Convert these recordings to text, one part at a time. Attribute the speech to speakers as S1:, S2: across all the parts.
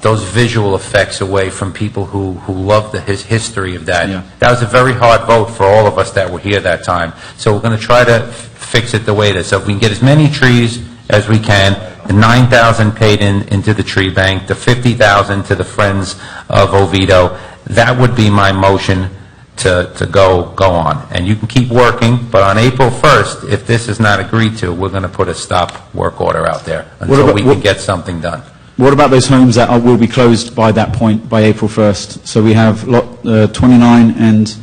S1: those visual effects away from people who, who love the his history of that.
S2: Yeah.
S1: That was a very hard vote for all of us that were here that time. So we're going to try to f- fix it the way it is. So if we can get as many trees as we can, the 9,000 paid in, into the tree bank, the 50,000 to the Friends of Oviedo, that would be my motion to, to go, go on. And you can keep working, but on April 1st, if this is not agreed to, we're going to put a stop work order out there until
S2: about-
S1: we can
S2: what-
S1: get something done.
S2: What about those homes that are, will be closed by that point, by April 1st? So we have lot uh, 29 and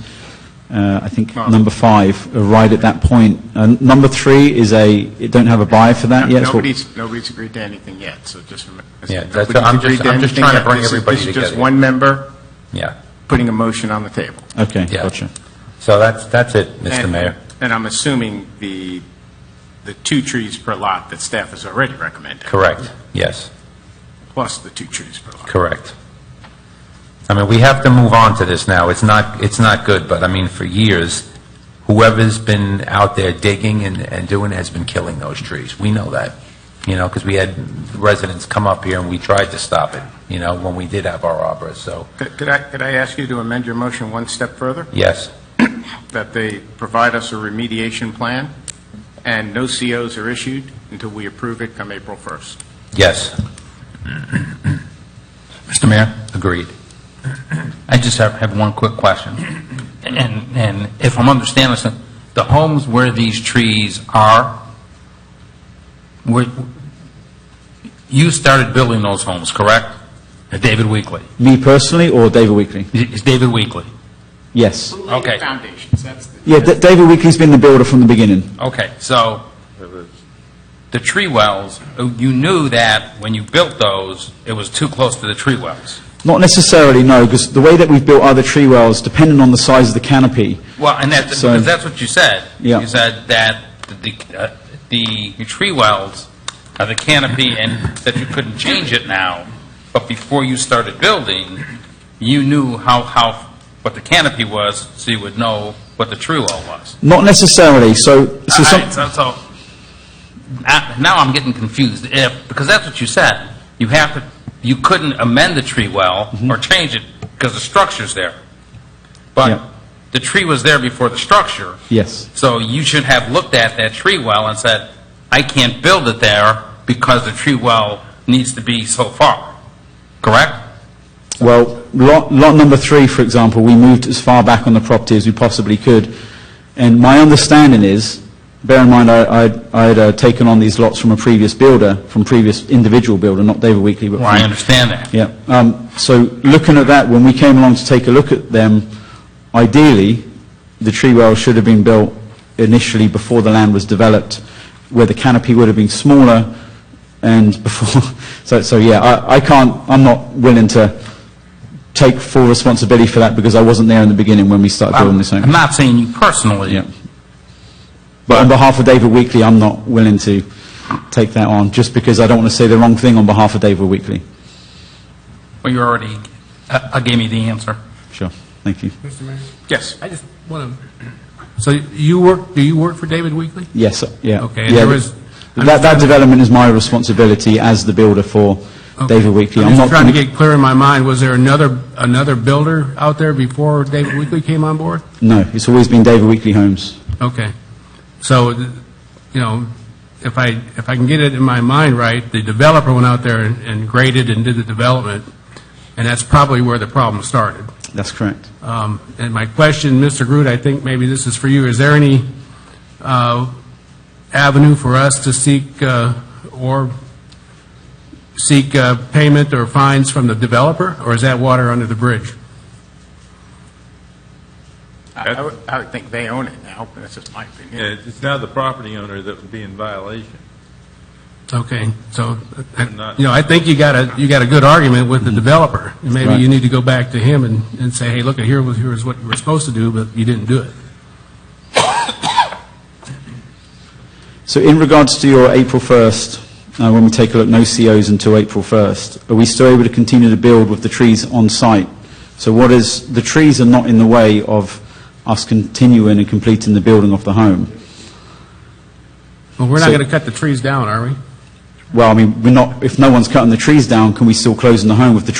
S2: uh, I think number five are right at that point. Uh, number three is a, it don't have a buyer for that yet. so-
S3: Nobody's, nobody's agreed to anything yet, so just remember.
S1: Yeah, that's- I'm just- I'm just trying to bring everybody
S3: This is just
S1: together.
S3: one member
S1: Yeah.
S3: putting a motion on the table.
S2: Okay,
S1: Yeah.
S2: gotcha.
S1: So that's, that's it, Mr.
S3: And-
S1: Mayor.
S3: And I'm assuming the, the two trees per lot that staff has already recommended,
S1: Correct, yes,
S3: plus the two trees per lot.
S1: correct. I mean, we have to move on to this now. It's not, it's not good, but I mean, for years, whoever's been out there digging and, and doing has been killing those trees. We know that, you know, because we had residents come up here and we tried to stop it, you know, when we did have our arborists, so,
S3: Could could I, could I ask you to amend your motion one step further?
S1: yes,
S3: That they provide us a remediation plan, and no COs are issued until we approve it come April 1st.
S1: yes.
S4: Mr. Mayor,
S1: Agreed.
S4: I just have, have one quick question. And, and if I'm understanding this, the homes where these trees are, where, you started building those homes, correct? At David Weekly?
S2: Me personally or David Weekly?
S4: It's David Weekly.
S2: Yes.
S4: Okay.
S3: Foundations, that's the.
S2: Yeah, D- David Weekly's been the builder from the beginning.
S4: Okay, so the tree wells, you knew that when you built those, it was too close to the tree wells.
S2: Not necessarily, no, because the way that we've built other tree wells, depending on the size of the canopy,
S4: Well, and that,
S2: So-
S4: because that's what you said.
S2: Yeah.
S4: You said that the, uh, the tree wells are the canopy and that you couldn't change it now, but before you started building, you knew how, how, what the canopy was, so you would know what the tree well was.
S2: not necessarily. So, so
S4: All
S2: some,
S4: right, so, so, uh, now I'm getting confused, if, because that's what you said. You have to, you couldn't amend the tree well or change it because the structure's there.
S2: Yep.
S4: But the tree was there before the structure.
S2: yes,
S4: So you should have looked at that tree well and said, I can't build it there because the tree well needs to be so far, correct?
S2: Well, lot, lot number three, for example, we moved as far back on the property as we possibly could. And my understanding is, bear in mind, I, I'd, I'd uh, taken on these lots from a previous builder, from previous individual builder, not David Weekly, but
S4: Well, I
S2: from-
S4: understand that.
S2: Yeah. Um, so looking at that, when we came along to take a look at them, ideally, the tree well should have been built initially before the land was developed, where the canopy would have been smaller and before. So, so yeah, I, I can't. I'm not willing to take full responsibility for that because I wasn't there in the beginning when we started building
S4: I'm
S2: this home.
S4: I'm not saying you personally.
S2: Yeah. But on behalf of David Weekly, I'm not willing to take that on just because I don't want to say the wrong thing on behalf of David Weekly.
S4: Well, you already uh, uh, gave me the answer.
S2: Sure. Thank you.
S3: Yes.
S5: I just want to, so you work, do you work for David Weekly?
S2: Yes, yeah.
S5: Okay,
S2: Yeah,
S5: there is-
S2: That, that development is my responsibility as the builder for David Weekly.
S5: I'm
S2: not
S5: just trying to
S2: gonna-
S5: get clear in my mind, was there another, another builder out there before David Weekly came on board?
S2: No, it's always been David Weekly Homes.
S5: Okay. So, th- you know, if I, if I can get it in my mind right, the developer went out there and- and graded and did the development, and that's probably where the problem started.
S2: That's correct.
S5: Um, And my question, Mr. Groot, I think maybe this is for you, is there any uh, avenue for us to seek, uh, or seek uh, payment or fines from the developer, or is that water under the bridge?
S3: I I would, I would think they own it now, but that's just my opinion.
S6: Yeah, It's now the property owner that would be in violation.
S5: Okay, so, uh, Mm-hmm.
S6: I'm not-
S5: you know, I think you got a, you got a good argument with the developer. And Maybe
S2: Right.
S5: you need to go back to him and and say, hey, look, here was, here is what you were supposed to do, but you didn't do it.
S2: So in regards to your April 1st, uh, when we take a look, no COs until April 1st, are we still able to continue to build with the trees on site? So what is, the trees are not in the way of us continuing and completing the building of the home?
S5: Well, we're not
S2: So-
S5: going to cut the trees down, are we?
S2: well, I mean, we're not, if no one's cutting the trees down, can we still close in the home if the